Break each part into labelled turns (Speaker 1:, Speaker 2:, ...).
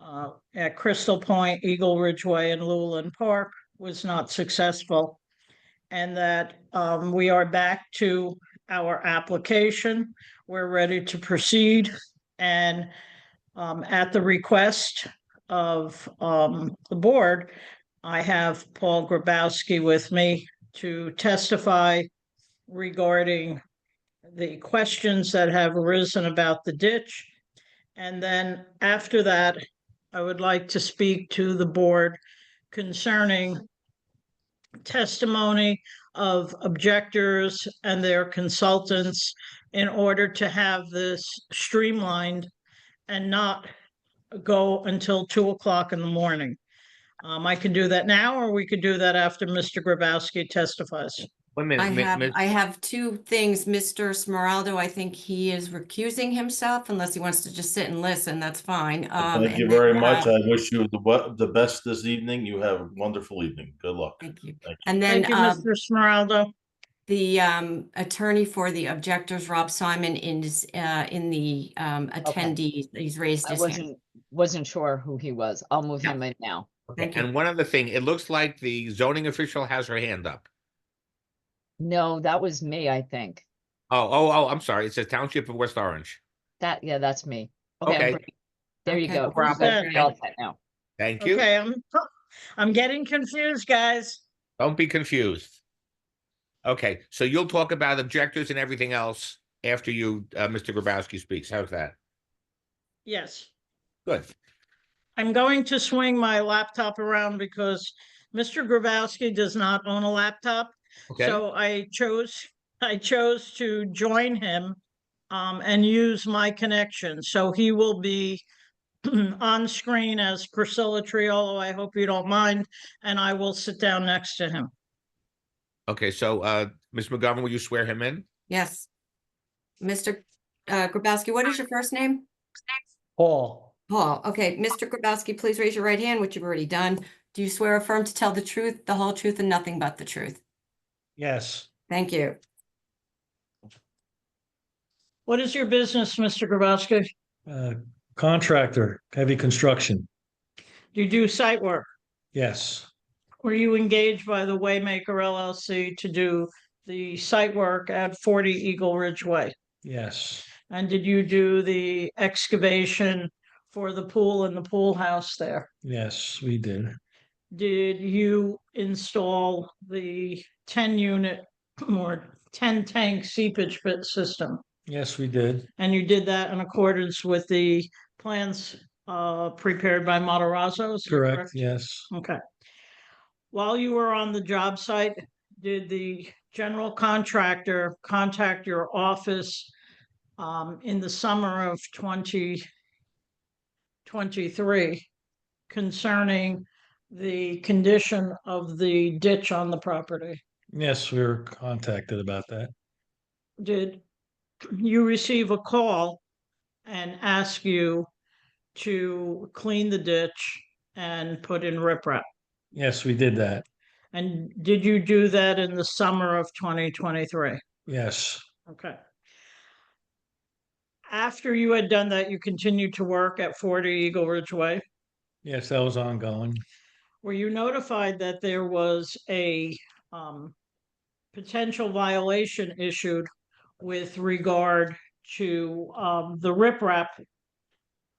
Speaker 1: uh, at Crystal Point, Eagle Ridgeway and Lulin Park was not successful. And that um, we are back to our application. We're ready to proceed. And um, at the request of um, the board, I have Paul Grabowski with me to testify regarding the questions that have arisen about the ditch. And then after that, I would like to speak to the board concerning testimony of objectors and their consultants in order to have this streamlined and not go until two o'clock in the morning. Um, I can do that now, or we could do that after Mr. Grabowski testifies.
Speaker 2: One
Speaker 3: I
Speaker 2: minute, mi-
Speaker 3: have,
Speaker 2: miss-
Speaker 3: I have two things. Mr. Smeraldo, I think he is recusing himself unless he wants to just sit and listen. That's fine. Um,
Speaker 4: Thank you
Speaker 3: and
Speaker 4: very
Speaker 3: then,
Speaker 4: much.
Speaker 3: uh,
Speaker 4: I wish you the we- the best this evening. You have a wonderful evening. Good luck.
Speaker 3: Thank you.
Speaker 4: Thank you.
Speaker 3: And
Speaker 1: Thank
Speaker 3: then
Speaker 1: you,
Speaker 3: um,
Speaker 1: Mr. Smeraldo.
Speaker 3: the um, attorney for the objectors, Rob Simon, is uh, in the um, attendees. He's raised
Speaker 5: I
Speaker 3: his hand.
Speaker 5: wasn't, wasn't sure who he was. I'll move
Speaker 3: Yeah.
Speaker 5: him in now.
Speaker 2: okay,
Speaker 3: thank you.
Speaker 2: and one other thing, it looks like the zoning official has her hand up.
Speaker 5: No, that was me, I think.
Speaker 2: Oh, oh, oh, I'm sorry. It says Township of West Orange.
Speaker 5: That, yeah, that's me. Okay. I'm
Speaker 2: Okay.
Speaker 5: great. There you
Speaker 3: Okay,
Speaker 5: go.
Speaker 3: no problem.
Speaker 5: That's
Speaker 3: Okay.
Speaker 5: all set Now,
Speaker 2: Thank you.
Speaker 1: Okay, I'm, I'm getting confused, guys.
Speaker 2: Don't be confused. Okay, so you'll talk about objectors and everything else after you, uh, Mr. Grabowski speaks. How's that?
Speaker 1: Yes,
Speaker 2: Good.
Speaker 1: I'm going to swing my laptop around because Mr. Grabowski does not own a laptop.
Speaker 2: Okay,
Speaker 1: So I chose, I chose to join him um, and use my connection. So he will be on screen as Priscilla Triolo. I hope you don't mind, and I will sit down next to him.
Speaker 2: okay, so, uh, Ms. McGovern, will you swear him in?
Speaker 3: Yes. Mr. uh, Grabowski, what is your first name?
Speaker 1: Paul.
Speaker 3: Paul. Okay, Mr. Grabowski, please raise your right hand, which you've already done. Do you swear affirm to tell the truth, the whole truth, and nothing but the truth?
Speaker 1: Yes.
Speaker 3: Thank you.
Speaker 1: What is your business, Mr. Grabowski?
Speaker 6: Uh, Contractor, heavy construction,
Speaker 1: Do you do site work?
Speaker 6: yes,
Speaker 1: Were you engaged by the Waymaker LLC to do the site work at forty Eagle Ridge Way?
Speaker 6: yes,
Speaker 1: And did you do the excavation for the pool and the pool house there?
Speaker 6: yes, we did,
Speaker 1: Did you install the ten unit or ten tank seepage pit system?
Speaker 6: yes, we did,
Speaker 1: And you did that in accordance with the plans uh prepared by Matarazzo? is that
Speaker 6: correct, yes,
Speaker 1: Okay. While you were on the job site, did the general contractor contact your office um, in the summer of twenty twenty-three concerning the condition of the ditch on the property?
Speaker 6: yes, we were contacted about that,
Speaker 1: Did you receive a call and ask you to clean the ditch and put in riprap?
Speaker 6: yes, we did that,
Speaker 1: And did you do that in the summer of twenty twenty-three?
Speaker 6: yes,
Speaker 1: Okay. After you had done that, you continued to work at forty Eagle Ridge Way.
Speaker 6: yes, that was ongoing,
Speaker 1: Were you notified that there was a um potential violation issued with regard to um the riprap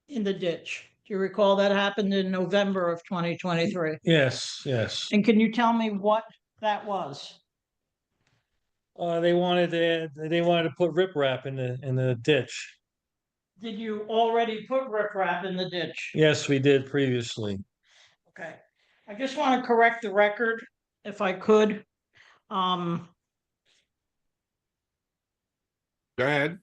Speaker 1: in the ditch? Do you recall that happened in November of twenty twenty-three?
Speaker 6: yes, yes.
Speaker 1: And can you tell me what that was?
Speaker 6: Uh, they wanted to, they wanted to put riprap in the, in the ditch,
Speaker 1: Did you already put riprap in the ditch?
Speaker 6: yes, we did previously,
Speaker 1: Okay, I just want to correct the record if I could. Um,
Speaker 2: Go ahead.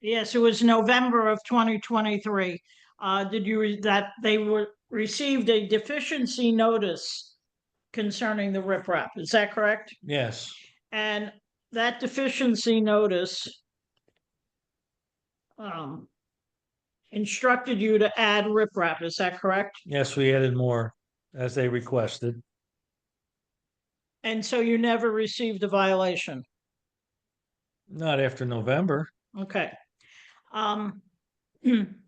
Speaker 1: yes, it was November of twenty twenty-three. Uh, did you, re- that they were, received a deficiency notice concerning the riprap, is that correct?
Speaker 6: yes,
Speaker 1: And that deficiency notice um, instructed you to add riprap, is that correct?
Speaker 6: yes, we added more as they requested,
Speaker 1: And so you never received a violation?
Speaker 6: not after November,
Speaker 1: Okay. Um,